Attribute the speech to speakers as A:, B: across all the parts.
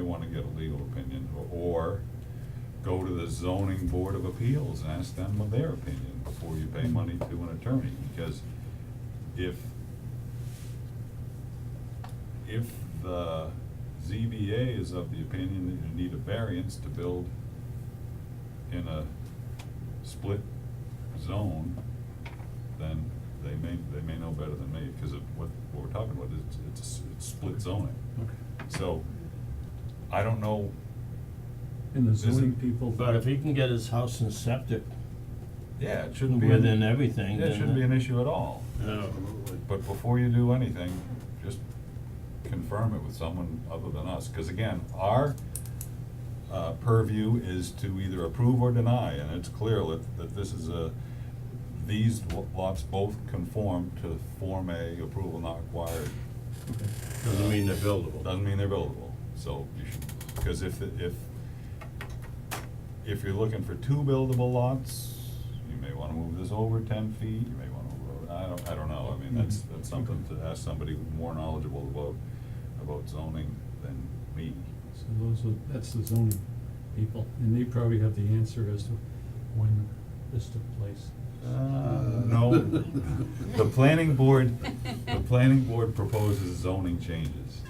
A: wanna get a legal opinion, or go to the zoning board of appeals and ask them what their opinion before you pay money to an attorney, because if if the ZBA is of the opinion that you need a variance to build in a split zone, then they may, they may know better than me, because of what, what we're talking about, is it's, it's split zoning.
B: Okay.
A: So, I don't know,
B: And the
A: Is it-
B: zoning people.
C: But if he can get his house and septic
A: yeah, it shouldn't be. an-
C: within everything,
A: Yeah,
C: then.
A: it shouldn't be an issue at all.
C: Absolutely.
A: But before you do anything, just confirm it with someone other than us, cause again, our uh, purview is to either approve or deny, and it's clear that, that this is a, these lo- lots both conform to Form A approval not required.
B: Okay.
C: Doesn't mean they're buildable.
A: Doesn't mean they're buildable, so you should, cause if, it- if, if you're looking for two buildable lots, you may wanna move this over ten feet, you may wanna, move over- I don't, I don't know, I mean, that's,
B: Mhm.
A: that's something to ask somebody more knowledgeable about, about zoning than me.
B: So those are, that's the zoning people, and they probably have the answer as to when this took place.
A: Uh, no, the planning board, the planning board proposes zoning changes,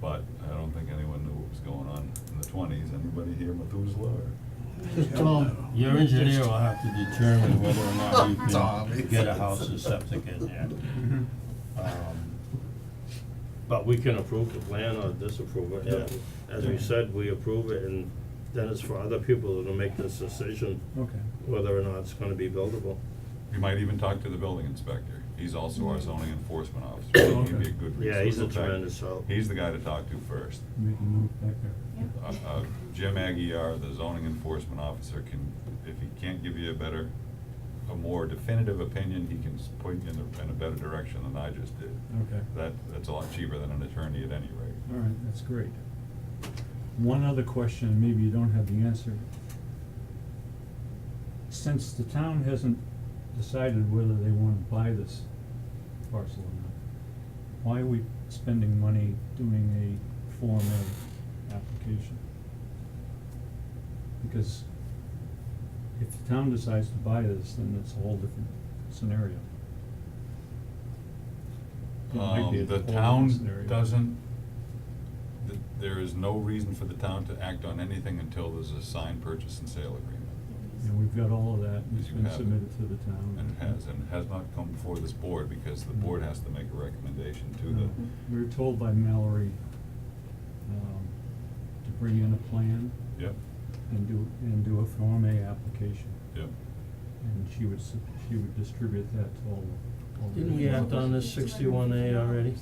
A: but I don't think anyone knew what was going on in the twenties, anybody here Methuselah or?
B: Just tell 'em,
C: Your engineer will have to determine whether or not you
D: Tommy.
C: can get a house and septic in there. Um, But we can approve the plan or disapprove it, and as we
A: Yeah.
C: said, we approve it, and then it's for other people to make this decision
B: okay,
C: whether or not it's gonna be buildable.
A: You might even talk to the building inspector. He's also our zoning enforcement officer. He'd be a good resource.
C: Oh, Yeah, he's a
A: In fact,
C: tremendous help.
A: He's the guy to talk to first.
B: make a note back there.
A: Uh, uh, Jim Aguirre, the zoning enforcement officer, can, if he can't give you a better, a more definitive opinion, he can s- point you in a, in a better direction than I just did.
B: Okay,
A: That, that's a lot cheaper than an attorney at any rate.
B: all right, that's great. One other question, maybe you don't have the answer. Since the town hasn't decided whether they wanna buy this parcel or not, why are we spending money doing a Form A application? Because if the town decides to buy this, then it's a whole different scenario. It might be a
A: Um, the
B: whole different
A: town
B: scenario.
A: doesn't, th- there is no reason for the town to act on anything until there's a signed purchase and sale agreement.
B: And we've got all of that, and it's
A: You
B: been
A: have it.
B: submitted to the town.
A: And it has, and it has not come before this board, because the board has to make a recommendation to
B: No.
A: the,
B: Uh, We were told by Mallory, um, to bring in a plan
A: yep,
B: and do, and do a Form A application.
A: yep.
B: And she would, s- she would distribute that to all, the- all the.
C: Didn't we act on
B: developers.
C: this sixty-one A already?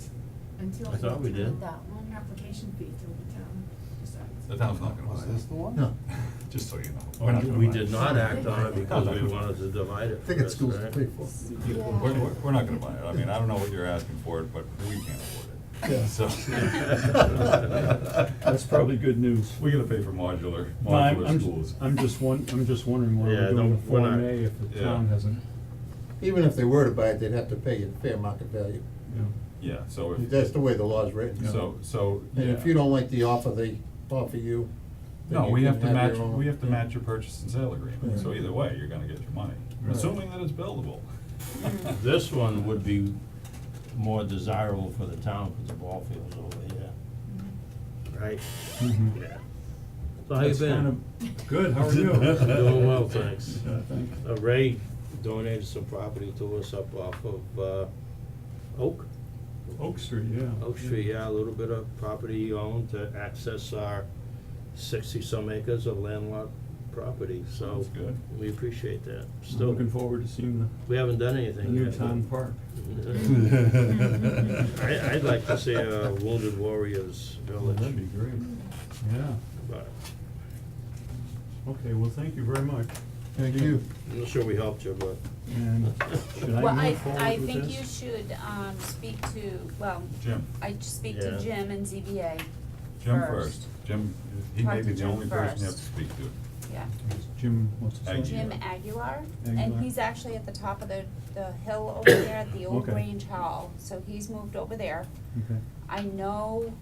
E: Until,
C: I thought we
E: until
C: did.
E: that one application fee till the town decides.
A: The town's not gonna buy
D: Was this the
A: it,
D: one?
F: No,
A: just so you know.
C: We
A: We're not gonna
C: we
A: buy it.
C: did not act on it because we wanted to divide it
F: I
C: for
F: think
C: this,
F: it's schools to
C: right?
F: pay for.
E: Yeah.
A: We're, we're, we're not gonna buy it, I mean, I don't know what you're asking for it, but we can't afford it,
F: Yeah.
A: so.
B: That's probably good news.
A: We gotta pay for modular,
B: No, I'm-
A: modular
B: I'm-
A: schools.
B: I'm just one, I'm just wondering why
C: Yeah,
B: we're doing a
C: don't- we're
B: Form
C: not-
B: A if the
A: yeah.
B: town hasn't,
F: Even if they were to buy it, they'd have to pay it fair market value.
B: you know.
A: Yeah, so
F: That's
A: if,
F: the way the law's written.
A: so, so,
F: And if
A: yeah.
F: you don't like the offer they offer you, then
A: No,
F: you
A: we
F: can
A: have to
F: your
A: match,
F: own-
A: we have to match your purchase and sale agreement, so
F: Right.
A: either way, you're gonna get your money,
F: Right.
A: assuming that it's buildable. Mm.
C: This one would be more desirable for the town because the ball field's over here. Right.
B: Mhm.
C: Yeah. Mm-hmm. So how you
B: That's kind
C: been?
B: of- Good, how are you?
C: Doing well, thanks.
B: Yeah, thank you.
C: Uh, Ray donated some property to us up off of, uh, Oak,
B: Oak Street, yeah.
C: Oak Street, yeah, a little bit of property he owned to access our sixty-some acres of landlocked property, so.
A: That's good.
C: We appreciate that,
B: I'm
C: still.
B: looking forward to seeing the
C: We haven't done anything
B: The
C: yet.
B: new
C: but-
B: town park.
C: I, I'd like to see uh, a Wounded Warriors Village.
B: great. Yeah,
C: But
B: okay, well, thank you very much.
F: Thank you.
C: I'm not sure we helped you, but.
B: And should
G: Well,
B: I
G: I,
B: move forward
G: I
B: with
G: think
B: this?
G: you should, um, speak to, well,
A: Jim,
G: I just speak to
C: Yeah.
G: Jim and ZBA
A: Jim first, Jim, he may
G: Talk
A: be
G: to
A: the
G: Jim
A: only person you have to
G: first.
A: speak to.
G: Yeah,
B: Jim, what's his name?
A: Thank you.
G: Jim Aguilar,
B: Aguilar.
G: and he's actually at the top of the, the hill over there at the old
B: Okay.
G: Grange Hall, so he's moved over there.
B: Okay,
G: I know